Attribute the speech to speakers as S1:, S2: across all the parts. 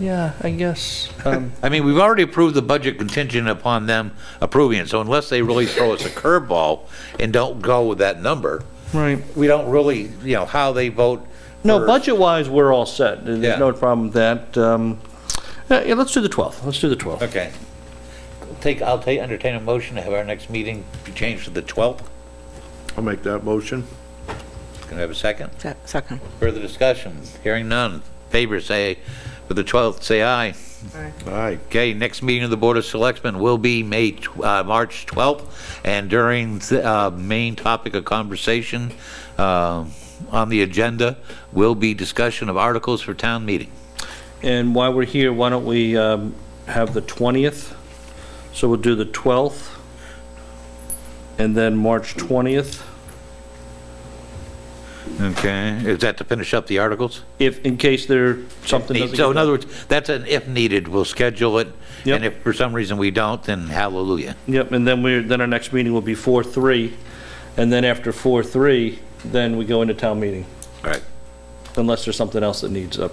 S1: Yeah, I guess. um,
S2: I mean, we've already approved the budget contingent upon them approving it, so unless they really throw us a curveball and don't go with that number,
S1: Right.
S2: we don't really, you know, how they vote.
S1: No,
S2: for-
S1: budget-wise, we're all set.
S2: Yeah.
S1: There's no problem with that. Um, uh, yeah, Let's do the 12th. Let's do the 12th.
S2: Okay. Take, I'll take, entertain a motion to have our next meeting be changed to the 12th.
S3: I'll make that motion.
S2: Can I have a second?
S4: Se- Second.
S2: Further discussion? Hearing none. Favor say, for the 12th, say aye.
S3: Aye.
S2: Okay, next meeting of the Board of Selectmen will be May, tw- uh, March 12th, and during the uh, main topic of conversation uh, on the agenda will be discussion of articles for town meeting.
S1: And while we're here, why don't we um, have the 20th? So we'll do the 12th, and then March 20th.
S2: Okay. Is that to finish up the articles?
S1: If, in case there, something doesn't.
S2: So in
S1: get
S2: other words, that's an if needed, we'll schedule it,
S1: Yep.
S2: and if for some reason we don't, then hallelujah.
S1: done. Yep, and then we're, then our next meeting will be 4/3, and then after 4/3, then we go into town meeting,
S2: All right.
S1: unless there's something else that needs up.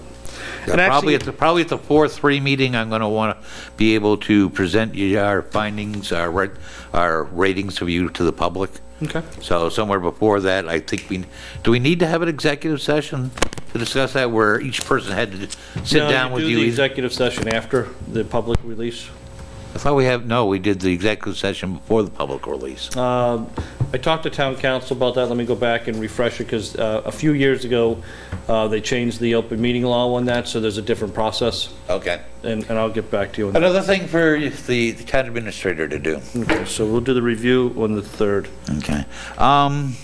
S1: And
S2: Probably
S1: actually-
S2: at the, probably at the four, three meeting, I'm gonna wanna be able to present you our findings, our, ra- our ratings of you to the public.
S1: Okay.
S2: So somewhere before that, I think we, do we need to have an executive session to discuss that where each person had to sit
S1: No,
S2: down with
S1: Do the
S2: you? either?
S1: executive session after the public release.
S2: I thought we have, no, we did the executive session before the public release.
S1: Um, I talked to town council about that, let me go back and refresh it, because a few years ago, uh, they changed the open meeting law on that, so there's a different process,
S2: Okay.
S1: and and I'll get back to you on that.
S2: Another thing for the the town administrator to do.
S1: Okay, So we'll do the review on the 3rd.
S2: Okay. Um,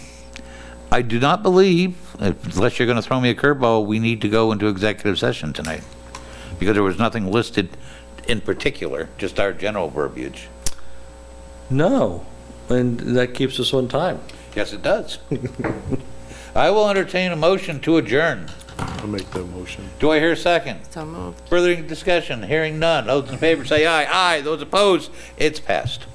S2: I do not believe, unless you're going to throw me a curveball, we need to go into executive session tonight. Because there was nothing listed in particular, just our general verbiage.
S1: No, and that keeps us on time.
S2: Yes, it does. I will entertain a motion to adjourn.
S3: I'll make that motion.
S2: Do I hear a second?
S4: So moved.
S2: Further discussion, hearing none. Those in favor say aye. Aye. Those opposed, it's passed.